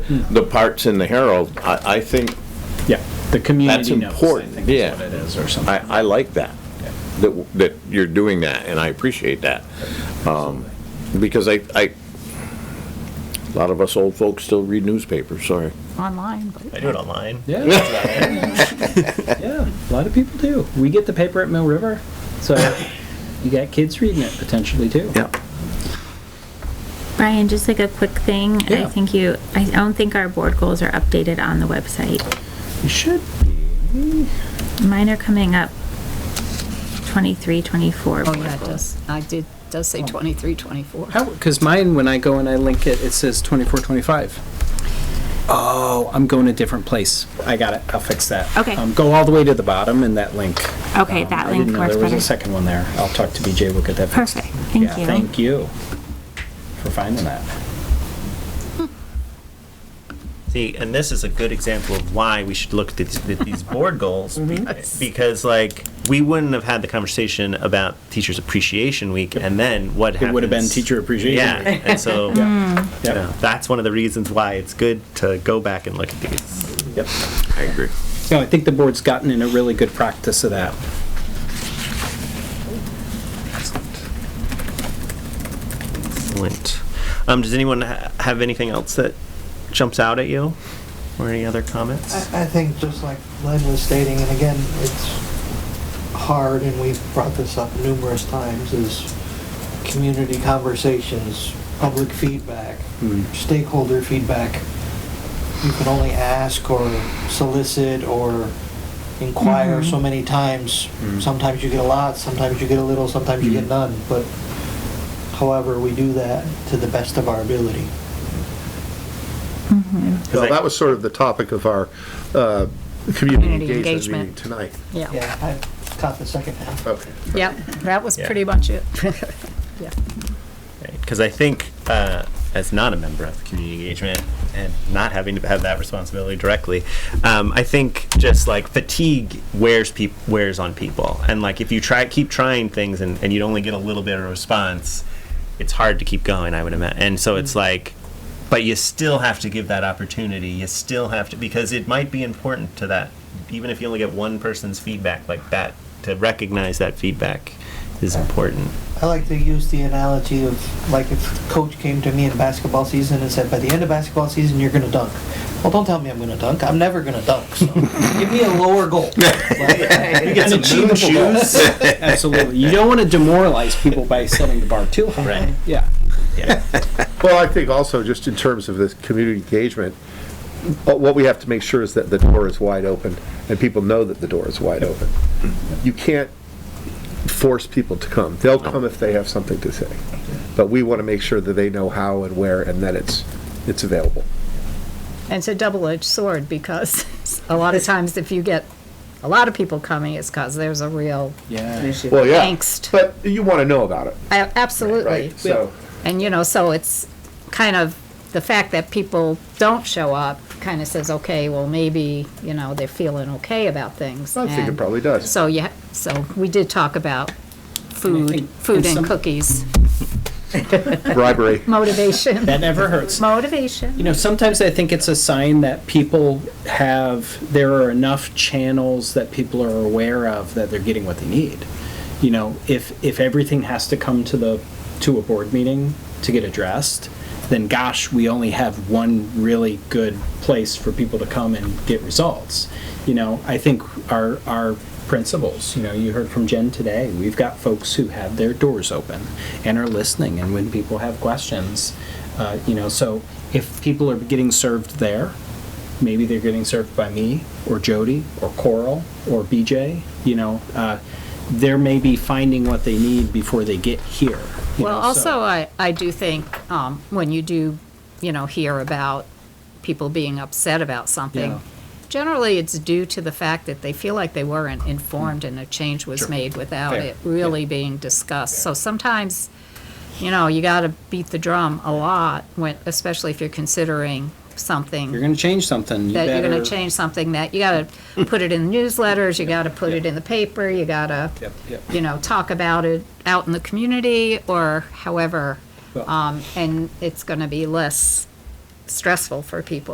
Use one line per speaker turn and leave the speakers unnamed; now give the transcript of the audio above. the parts in the Herald, I, I think,
Yeah, the
That's
community knows, I
important,
think is
yeah.
what it is, or something.
I, I like that, that, that you're doing that, and I appreciate that. Um, Because I, I, a lot of us old folks still read newspapers, sorry.
online, but.
I do it online.
Yeah. Yeah, a lot of people do. We get the paper at Mill River, so you got kids reading it potentially too.
Yeah.
Brian, just like a quick thing, I
Yeah.
think you, I don't think our board goals are updated on the website.
You should.
Mine are coming up 23, 24.
Oh,
board
yeah, it
goals.
does. I did, does say 23, 24.
How? Because mine, when I go and I link it, it says 24, 25. Oh, I'm going a different place. I got it. I'll fix that.
Okay.
Um, go all the way to the bottom and that link.
Okay,
Um,
that
I
link
didn't know
works
There was a
better.
second one there. I'll talk to BJ. We'll get that fixed.
Perfect, thank
Yeah,
you.
Thank you for finding that.
See, and this is a good example of why we should look at these, at these board goals be- because, like, we wouldn't have had the conversation about Teachers Appreciation Week, and then what
It would have been Teacher Appreciation
Yeah,
Week.
and so you
Yep.
know, that's one of the reasons why it's good to go back and look at these.
Yep.
I agree.
No, I think the board's gotten in a really good practice of that.
Excellent. Um, does anyone ha- have anything else that jumps out at you, or any other comments?
I, I think just like Len was stating, and again, it's hard, and we've brought this up numerous times, is community conversations, public feedback, stakeholder feedback. You can only ask or solicit or inquire so many times. Sometimes you get a lot, sometimes you get a little, sometimes you get none, but however, we do that to the best of our ability.
Well, that was sort of the topic of our uh, community
Community
engagement
engagement.
meeting tonight.
Yeah.
Yeah, I caught the second half.
Okay.
Yep, that was
Yeah.
pretty much it.
Because I think, uh, as not a member of community engagement and not having to have that responsibility directly, um, I think just like fatigue wears peop wears on people, and like if you try keep trying things and, and you only get a little bit of response, it's hard to keep going. I would imagine, and so it's like. But you still have to give that opportunity. You still have to because it might be important to that. Even if you only get one person's feedback like that, to recognize that feedback is important.
I like to use the analogy of like if coach came to me in basketball season and said, by the end of basketball season, you're going to dunk. Well, don't tell me I'm going to dunk. I'm never going to dunk. So give me a lower goal. Like,
Get some moon shoes.
Absolutely. You don't want to demoralize people by setting the bar too high.
Right.
Yeah.
Yeah.
Well, I think also, just in terms of this community engagement, uh, what we have to make sure is that the door is wide open, and people know that the door is wide open. You can't force people to come. They'll come if they have something to say. But we want to make sure that they know how and where, and that it's, it's available.
And it's a double-edged sword because a lot of times if you get a lot of people coming, it's because there's a real
Yeah.
Well, yeah.
angst.
But you want to know about it,
A- Absolutely.
right? So,
And, you know, so it's kind of, the fact that people don't show up kind of says, okay, well, maybe, you know, they're feeling okay about things.
I think it
And
probably does.
So, yeah, so we did talk about food,
think-
food
and
and
some-
cookies,
bribery.
motivation,
That never hurts.
motivation.
You know, sometimes I think it's a sign that people have, there are enough channels that people are aware of that they're getting what they need. You know, if, if everything has to come to the, to a board meeting to get addressed, then gosh, we only have one really good place for people to come and get results. You know, I think our, our principals, you know, you heard from Jen today, we've got folks who have their doors open and are listening, and when people have questions, uh, you know, so if people are getting served there, maybe they're getting served by me or Jody or Coral or BJ, you know, uh, they're maybe finding what they need before they get here. you
Well,
know, so-
also, I, I do think, um, when you do, you know, hear about people being upset about
Yeah.
something, generally, it's due to the fact that they feel like they weren't informed and a change was made without
Fair.
it really being discussed. So sometimes, you know, you gotta beat the drum a lot, when, especially if you're considering something
You're gonna change something, you
that you're
better.
gonna change something that, you gotta put it in the newsletters, you gotta put it in the paper, you gotta,
Yep, yep.
you know, talk about it out in the community or however.
Well-
Um, and it's gonna be less stressful for people.